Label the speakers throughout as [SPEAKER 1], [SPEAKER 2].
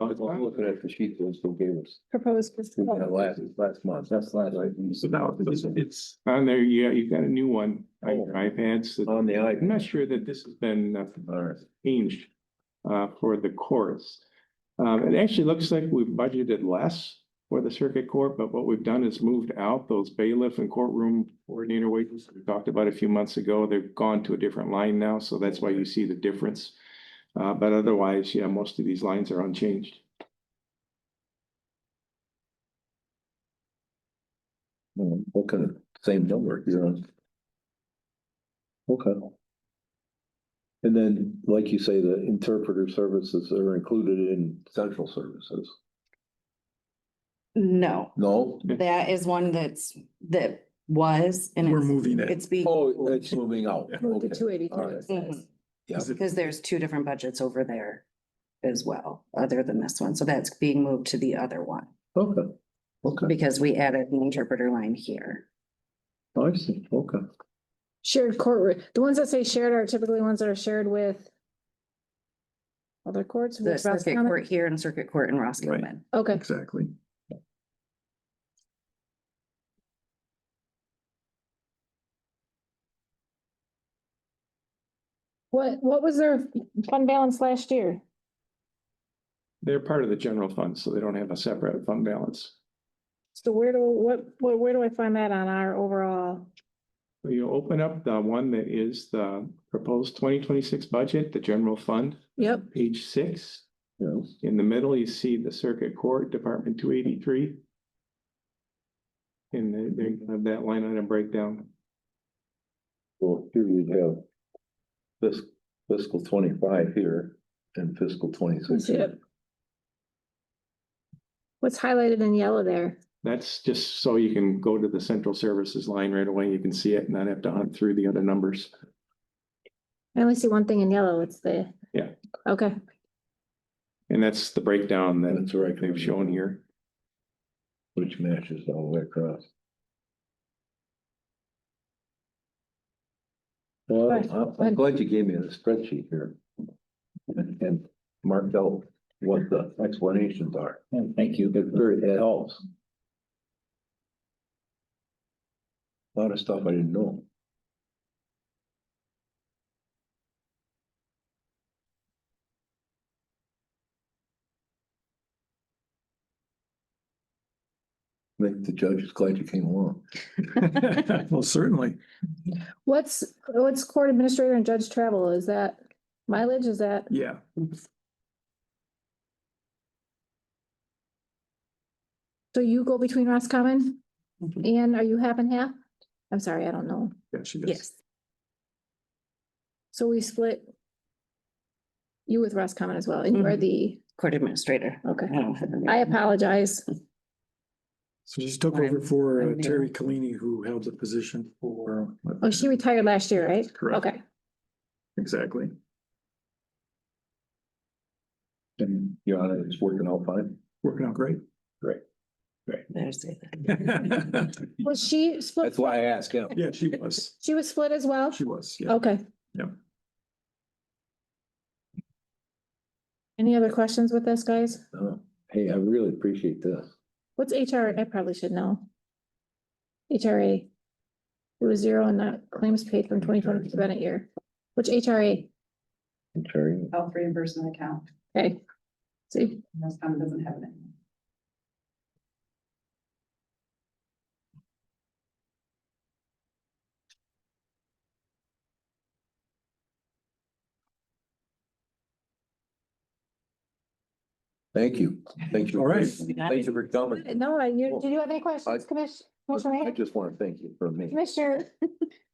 [SPEAKER 1] I'm looking at the sheet that still gave us,
[SPEAKER 2] proposed.
[SPEAKER 1] we got last, last month, that's last, right?
[SPEAKER 3] So now it's, it's on there, yeah, you've got a new one on your iPads. that-
[SPEAKER 1] On the
[SPEAKER 3] I'm
[SPEAKER 1] iPad.
[SPEAKER 3] not sure that this has been uh,
[SPEAKER 1] All right.
[SPEAKER 3] changed uh, for the courts. Um, it actually looks like we've budgeted less for the circuit court, but what we've done is moved out those bailiff and courtroom coordinator wages that we talked about a few months ago. They've gone to a different line now, so that's why you see the difference. Uh, but otherwise, yeah, most of these lines are unchanged.
[SPEAKER 1] Hmm, What kind of same number you're on? Okay. And then, like you say, the interpreter services are included in central services.
[SPEAKER 4] No,
[SPEAKER 1] No?
[SPEAKER 5] Hmm.
[SPEAKER 4] that is one that's, that was. and
[SPEAKER 5] We're
[SPEAKER 4] it's-
[SPEAKER 5] moving it.
[SPEAKER 4] It's being,
[SPEAKER 1] Oh, it's moving out.
[SPEAKER 2] Move the
[SPEAKER 1] Okay.
[SPEAKER 2] two
[SPEAKER 1] All right.
[SPEAKER 2] eighty-three.
[SPEAKER 4] Mhm,
[SPEAKER 1] Yeah.
[SPEAKER 5] Is it-
[SPEAKER 4] because there's two different budgets over there as well, other than this one. So that's being moved to the other one
[SPEAKER 1] Okay. Okay,
[SPEAKER 4] because we added an interpreter line here.
[SPEAKER 1] I see, okay.
[SPEAKER 2] Shared courtroom, the ones that say shared are typically ones that are shared with other courts.
[SPEAKER 4] The
[SPEAKER 2] with Ross
[SPEAKER 4] circuit
[SPEAKER 2] County.
[SPEAKER 4] court here and circuit court in Roscommon.
[SPEAKER 2] Okay,
[SPEAKER 5] Exactly.
[SPEAKER 2] what, what was their fund balance last year?
[SPEAKER 3] They're part of the general fund, so they don't have a separate fund balance.
[SPEAKER 2] So where do, what, where, where do I find that on our overall?
[SPEAKER 3] Will you open up the one that is the proposed twenty twenty-six budget, the general fund,
[SPEAKER 2] Yep.
[SPEAKER 3] page six?
[SPEAKER 1] Yeah.
[SPEAKER 3] In the middle, you see the circuit court, Department two eighty-three. And they, they have that line item breakdown.
[SPEAKER 1] Well, here you have this fiscal twenty-five here and fiscal twenty-six. here.
[SPEAKER 2] What's highlighted in yellow there?
[SPEAKER 3] That's just so you can go to the central services line right away. You can see it and not have to hunt through the other numbers.
[SPEAKER 2] I only see one thing in yellow, it's the.
[SPEAKER 3] Yeah.
[SPEAKER 2] Okay,
[SPEAKER 3] And that's the breakdown that
[SPEAKER 1] That's right.
[SPEAKER 3] they've shown here.
[SPEAKER 1] Which matches all the way across. Well,
[SPEAKER 2] Right.
[SPEAKER 1] I'm- I'm glad you gave me the spreadsheet here. And and marked out what the explanations are. Thank you. It very, it helps. A Lot of stuff I didn't know. Make the judges glad you came along.
[SPEAKER 5] Well, certainly.
[SPEAKER 2] what's, what's court administrator and judge travel? Is that mileage? Is that?
[SPEAKER 5] Yeah.
[SPEAKER 2] So you go between Roscommon
[SPEAKER 1] Mm-hmm.
[SPEAKER 4] Mhm.
[SPEAKER 2] and are you half and half? I'm sorry, I don't know.
[SPEAKER 5] Yeah, she does.
[SPEAKER 4] Yes,
[SPEAKER 2] So we split you with Roscommon as well, and you
[SPEAKER 5] Mm-hmm.
[SPEAKER 2] are
[SPEAKER 4] Mhm.
[SPEAKER 2] the,
[SPEAKER 4] court administrator.
[SPEAKER 2] okay.
[SPEAKER 4] I don't have
[SPEAKER 2] I
[SPEAKER 4] any-
[SPEAKER 2] apologize.
[SPEAKER 5] So she took over
[SPEAKER 4] I'm-
[SPEAKER 5] for uh,
[SPEAKER 4] I'm new.
[SPEAKER 5] Terry Kalini, who held the position for.
[SPEAKER 2] Oh, she retired last year, right?
[SPEAKER 5] Correct.
[SPEAKER 2] Okay,
[SPEAKER 5] Exactly.
[SPEAKER 1] And your honor, it's working out fine.
[SPEAKER 5] Working out great.
[SPEAKER 4] There's it.
[SPEAKER 2] was she split?
[SPEAKER 1] That's why I asked him.
[SPEAKER 5] Yeah, she was.
[SPEAKER 2] She was split as well?
[SPEAKER 5] She was, yeah.
[SPEAKER 2] Okay.
[SPEAKER 5] Yep.
[SPEAKER 2] Any other questions with this, guys?
[SPEAKER 1] Oh, Hey, I really appreciate this.
[SPEAKER 2] What's HR? I probably should know. HRA. It was zero and that claims paid from twenty twenty to Bennett year. Which HRA?
[SPEAKER 1] Terry.
[SPEAKER 6] health reimbursement account,
[SPEAKER 2] Okay. See,
[SPEAKER 6] most time doesn't have it anymore.
[SPEAKER 1] Thank you. Thank you.
[SPEAKER 5] All right.
[SPEAKER 1] Thank you for coming.
[SPEAKER 2] no, I- you, did you have any questions, Commissioner?
[SPEAKER 1] I just want to thank you for me.
[SPEAKER 2] Commissioner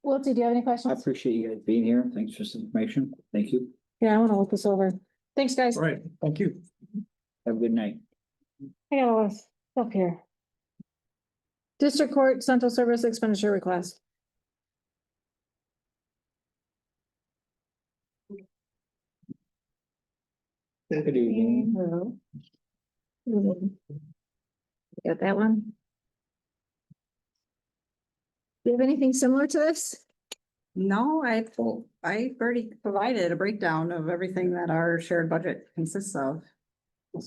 [SPEAKER 2] Wiltie, do you have any
[SPEAKER 7] I
[SPEAKER 2] questions?
[SPEAKER 7] appreciate you guys being here. Thanks for this information. Thank you.
[SPEAKER 2] Yeah, I want to look this over. Thanks, guys.
[SPEAKER 5] All right, thank you.
[SPEAKER 7] Have a good night.
[SPEAKER 2] I got a lot of stuff here. District Court Central Service Expenditure Request.
[SPEAKER 1] Good
[SPEAKER 2] Hello. Got that one? Do you have anything similar to this?
[SPEAKER 6] No, I, I've already provided a breakdown of everything that our shared budget consists of.